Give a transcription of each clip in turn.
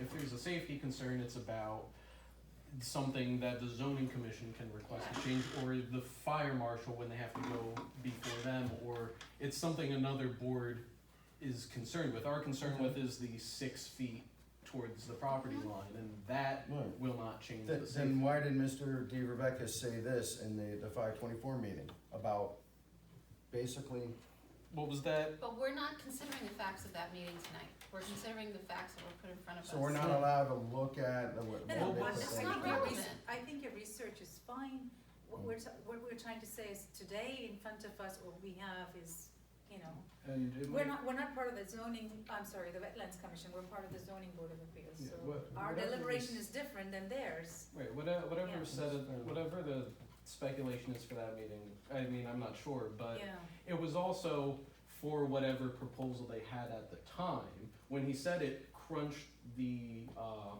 If there's a safety concern, it's about something that the zoning commission can request a change, or the fire marshal when they have to go before them, or it's something another board is concerned with. Our concern with is the six feet towards the property line, and that Right. will not change Th- the safety. Then why did Mr. D. Rebecca say this in the, the five twenty-four meeting about basically, What was that? But we're not considering the facts of that meeting tonight. We're considering the facts that were put in front of us. so we're not allowed to look at the what? No, Well, no, what I what- they it's I said? think not your relevant. research, I think your research is fine. What we're, t- what we're trying to say is today in front of us, what we have is, you know, And it might, we're not, we're not part of the zoning, I'm sorry, the Wetlands Commission, we're part of the zoning board of appeals. Yeah, So what- our whatever deliberation this- is different than theirs. Right, whatever, whatever Yeah. said, whatever the speculation is for that meeting, I mean, I'm not sure, but Yeah, it was also for whatever proposal they had at the time. When he said it crunched the, uh,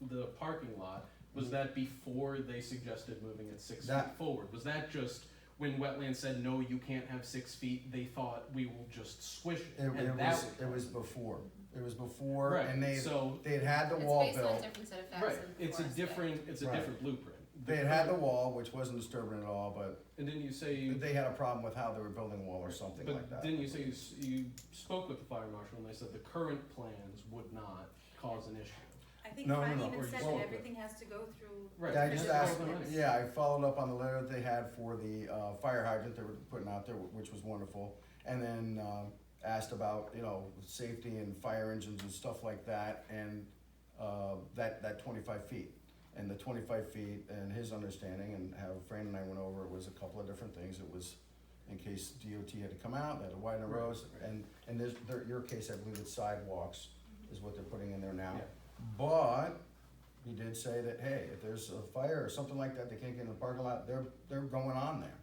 the parking lot, was that before they suggested moving it six feet That- forward? Was that just when wetland said, no, you can't have six feet, they thought we will just squish it? It, it and that was, would- it was before, it was before, Right, and they, so, they'd had the It's wall based on a built, different set of facts. right, than it's a Forrest did. different, it's a Right. different blueprint. they'd had the wall, which wasn't disturbing at all, but And didn't you say? they had a problem with how they were building a wall or something like that. But didn't you say you, s- you spoke with the fire marshal and they said the current plans would not cause an issue? I think No, no, Brian no, even or said just- that everything has to go through. Right. Yeah, I It's just all asked, the money. yeah, I followed up on the letter that they had for the, uh, fire hydrant they were putting out there, which was wonderful. And then, um, asked about, you know, safety and fire engines and stuff like that, and, uh, that, that twenty-five feet. And the twenty-five feet and his understanding, and how Fran and I went over, it was a couple of different things, it was in case DOT had to come out, they had to widen the Right, roads, right. and, and there's, there, your case, I believe it's sidewalks is what they're putting in there now. Yeah. But he did say that, hey, if there's a fire or something like that, they can't get in the parking lot, they're, they're going on there.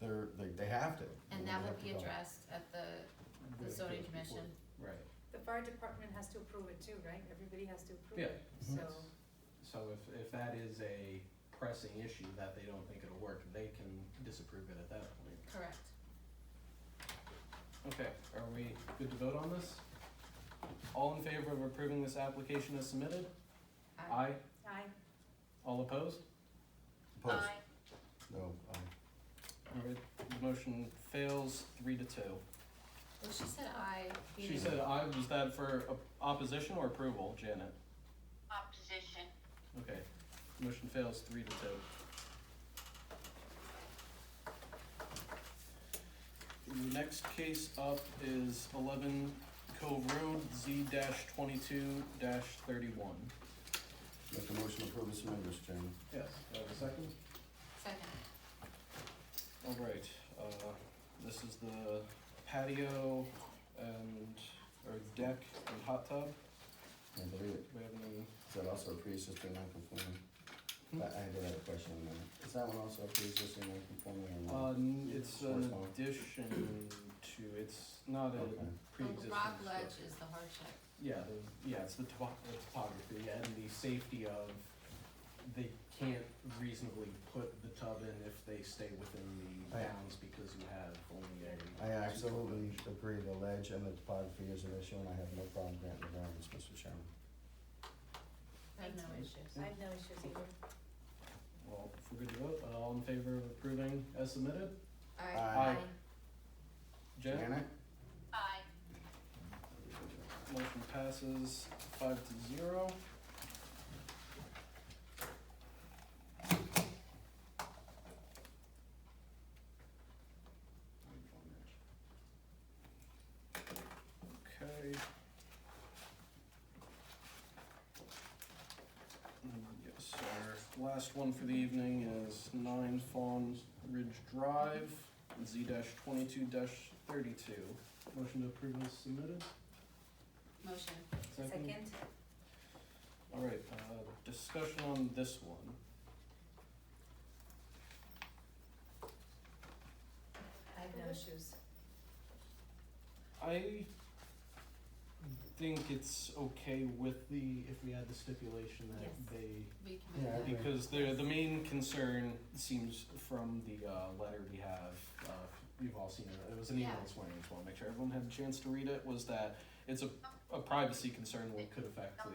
They're, they, they have to. And They that have would to be go. addressed at the, the zoning commission. Right, The fire department has to approve it too, right? Everybody has to approve Yeah. it, so. so if, if that is a pressing issue that they don't think it'll work, they can disapprove it at that point. Correct. Okay, are we good to vote on this? All in favor of approving this application as submitted? Aye. Aye. I, All opposed? Opposed? No, aye. Alright, the motion fails three to two. Well, she said aye. She said aye, was that for op- opposition or approval, Janet? opposition. Okay, motion fails three to two. The next case up is eleven Cove Road, Z twenty-two thirty-one. Make a motion to approve and submit, Mr. Chairman. Yes, do I have a second? Second. Alright, uh, this is the patio and, or deck and hot tub, I believe it. we have any, Is that also a pre-existing non-conforming? I, I did have a question on that. Is that one also a pre-existing non-conforming uh, or not? n- it's an Correspond. addition to, it's not Okay. a The pre-existing rock structure. ledge is the hardship. Yeah, the, yeah, it's the topo- the topography and the safety of, they can't reasonably put the tub in if they stay within the I- bounds because you have only a. I absolutely agree, the ledge and the topography is an issue, and I have no problem granting the variance, Mr. Chairman. I have no Thanks. issues. I have no issues either. Well, if we're good to vote, uh, all in favor of approving as submitted? Aye. Aye. Jen? Janet? Aye. Motion passes five to zero. Okay. Mm, Yes, our last one for the evening is nine Fawn Ridge Drive, Z twenty-two thirty-two. Motion to approve is submitted. Motion. Second, All right, uh, discussion on this one. I have no issues. I think it's okay with the, if we add the stipulation Yes. that they, We can Yeah, I move that. agree. because the, the main concern seems from the, uh, letter we have, uh, you've all seen it, it was an email Yeah. this morning, just wanna make sure everyone had a chance to read it, was that it's a, a privacy concern that could affect the